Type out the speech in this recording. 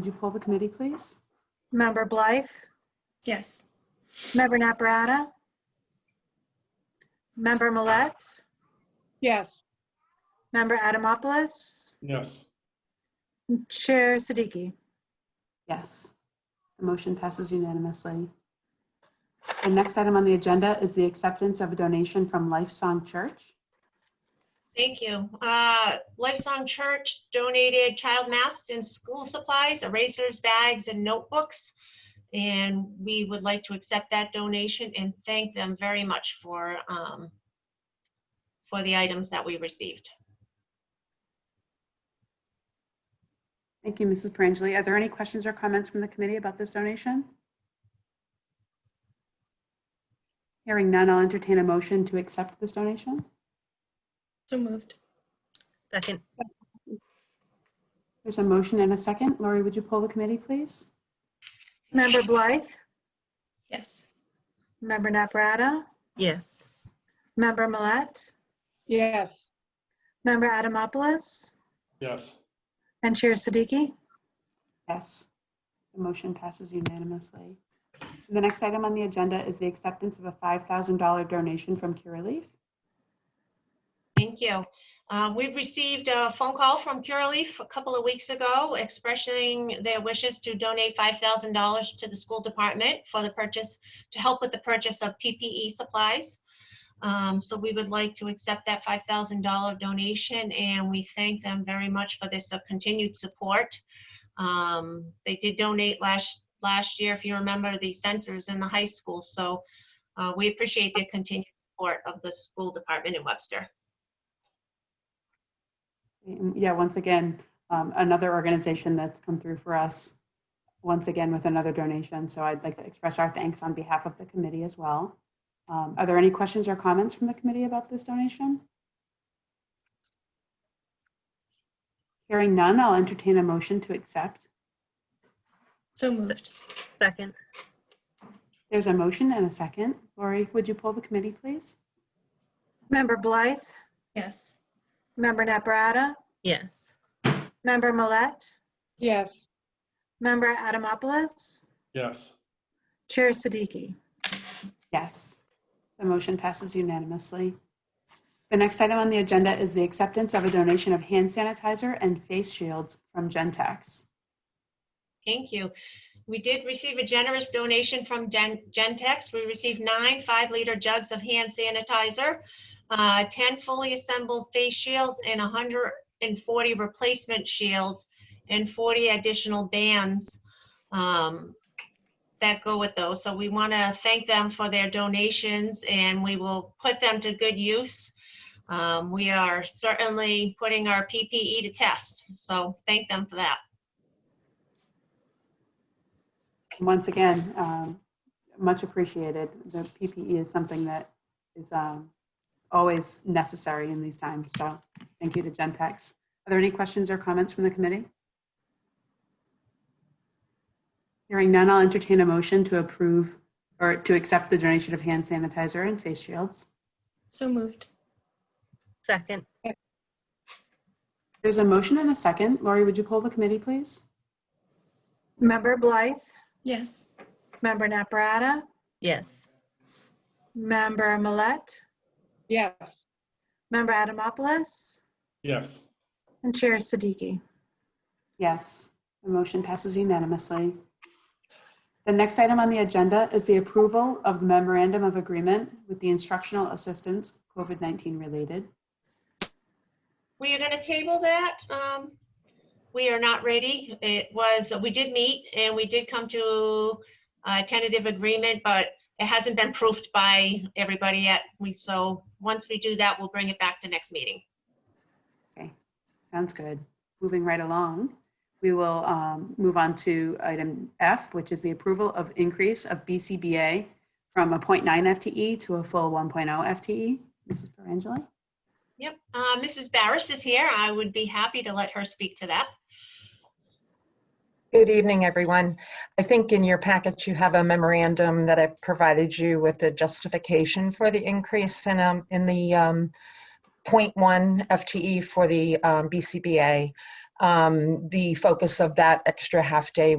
Would you pull the committee, please? Member Blythe? Yes. Member Naprata? Member Millet? Yes. Member Adamopoulos? Yes. Chair Siddiqui? Yes. The motion passes unanimously. The next item on the agenda is the acceptance of a donation from Life Song Church. Thank you. Uh, Lifesong Church donated child masks and school supplies, erasers, bags, and notebooks. And we would like to accept that donation and thank them very much for, um, for the items that we received. Thank you, Mrs. Perangeli. Are there any questions or comments from the committee about this donation? Hearing none, I'll entertain a motion to accept this donation. So moved. Second, There's a motion and a second. Lori, would you pull the committee, please? Member Blythe? Yes. Member Naprata? yes. Member Millet? Yes. Member Adamopoulos? Yes. And Chair Siddiqui? Yes. The motion passes unanimously. The next item on the agenda is the acceptance of a $5,000 donation from Cure Relief. Thank you. Uh, We've received a phone call from Curaleaf a couple of weeks ago expressing their wishes to donate $5,000 to the school department for the purchase, to help with the purchase of PPE supplies. Um, So we would like to accept that $5,000 donation, and we thank them very much for this uh, continued support. Um, They did donate last, last year, if you remember, the sensors in the high school. So uh, we appreciate their continued support of the school department in Webster. Mm, Yeah, once again, um, another organization that's come through for us, once again with another donation. So I'd like to express our thanks on behalf of the committee as well. Um, Are there any questions or comments from the committee about this donation? Hearing none, I'll entertain a motion to accept. So moved. Second, There's a motion and a second. Lori, would you pull the committee, please? Member Blythe? Yes. Member Naprata? yes. Member Millet? Yes. Member Adamopoulos? Yes. Chair Siddiqui? Yes. The motion passes unanimously. The next item on the agenda is the acceptance of a donation of hand sanitizer and face shields from Gentex. Thank you. We did receive a generous donation from Gen- Gentex. We received nine five-liter jugs of hand sanitizer, uh, 10 fully assembled face shields, and 140 replacement shields, and 40 additional bands um, that go with those. So we want to thank them for their donations, and we will put them to good use. Um, We are certainly putting our PPE to test, so thank them for that. And Once again, um, much appreciated. The PPE is something that is um, always necessary in these times, so thank you to Gentex. Are there any questions or comments from the committee? Hearing none, I'll entertain a motion to approve or to accept the donation of hand sanitizer and face shields. So moved. Second, There's a motion and a second. Lori, would you pull the committee, please? Member Blythe? Yes. Member Naprata? yes. Member Millet? Yes. Member Adamopoulos? Yes. And Chair Siddiqui? Yes, the motion passes unanimously. The next item on the agenda is the approval of the memorandum of agreement with the instructional assistance COVID-19 related. We are going to table that. um, We are not ready. It was, we did meet and we did come to a tentative agreement, but it hasn't been proofed by everybody yet. We, so once we do that, we'll bring it back to next meeting. Okay, sounds good. Moving right along, we will um, move on to item F, which is the approval of increase of BCBA from a 0.9 FTE E to a full 1.0 FTE. Mrs. E. Perangeli? Yep. uh, Mrs. Barris is here. I would be happy to let her speak to that. Good evening, everyone. I think in your packet you have a memorandum that I've provided you with the justification for the increase in, um, E in the um, 0.1 FTE for the um, BCBA. Um, The focus of that extra half-day